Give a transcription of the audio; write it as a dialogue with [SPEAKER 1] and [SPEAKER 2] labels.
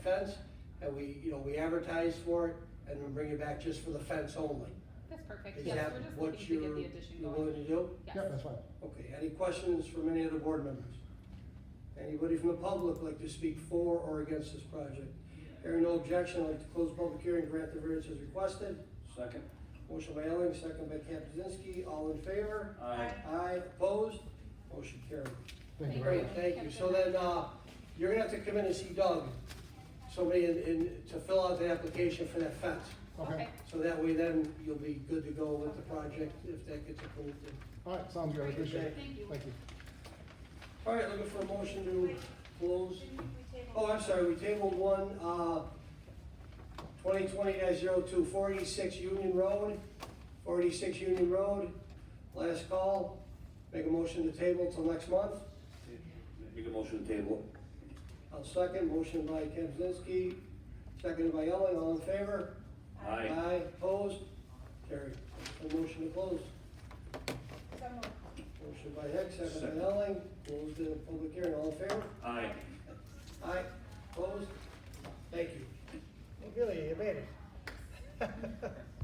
[SPEAKER 1] fence, and we, you know, we advertise for it, and then bring it back just for the fence only.
[SPEAKER 2] That's perfect,
[SPEAKER 1] Is
[SPEAKER 2] yes,
[SPEAKER 1] that
[SPEAKER 2] we're just
[SPEAKER 1] what
[SPEAKER 2] looking to
[SPEAKER 1] you're,
[SPEAKER 2] get the
[SPEAKER 1] you're
[SPEAKER 2] addition
[SPEAKER 1] willing
[SPEAKER 2] going,
[SPEAKER 1] to do?
[SPEAKER 2] yes.
[SPEAKER 3] Yeah, that's fine.
[SPEAKER 1] Okay, any questions from any of the board members? Anybody from the public like to speak for or against this project? Hearing no objection, I'd like to close public hearing, grant the variance as requested.
[SPEAKER 4] Second.
[SPEAKER 1] Motion by Elling, second by Kaptzinski, all in favor?
[SPEAKER 4] Aye.
[SPEAKER 1] Aye, opposed? Motion carried.
[SPEAKER 3] Thank you very
[SPEAKER 1] Great,
[SPEAKER 3] much.
[SPEAKER 1] thank you. So then, uh, you're gonna have to come in and see Doug, somebody in, in, to fill out the application for that fence.
[SPEAKER 3] Okay,
[SPEAKER 2] Okay,
[SPEAKER 1] So that way then you'll be good to go with the project if that gets approved.
[SPEAKER 3] all right, sounds good, I appreciate it.
[SPEAKER 2] Thank you.
[SPEAKER 3] Thank you.
[SPEAKER 1] All right, looking for a motion to close.
[SPEAKER 5] Didn't we table?
[SPEAKER 1] Oh, I'm sorry, we tabled one, uh, twenty twenty 2 46 Union Road, forty-six Union Road, last call. Make a motion to table till next month.
[SPEAKER 4] Make a motion to table.
[SPEAKER 1] I'll second, motion by Kaczynski, seconded by Elling, all in favor?
[SPEAKER 4] Aye.
[SPEAKER 1] Aye, opposed, carried. A motion to close.
[SPEAKER 5] So moved.
[SPEAKER 1] Motion by Hicks, seconded
[SPEAKER 4] Second.
[SPEAKER 1] by Elling, close the public hearing, all in favor?
[SPEAKER 4] Aye.
[SPEAKER 1] Aye,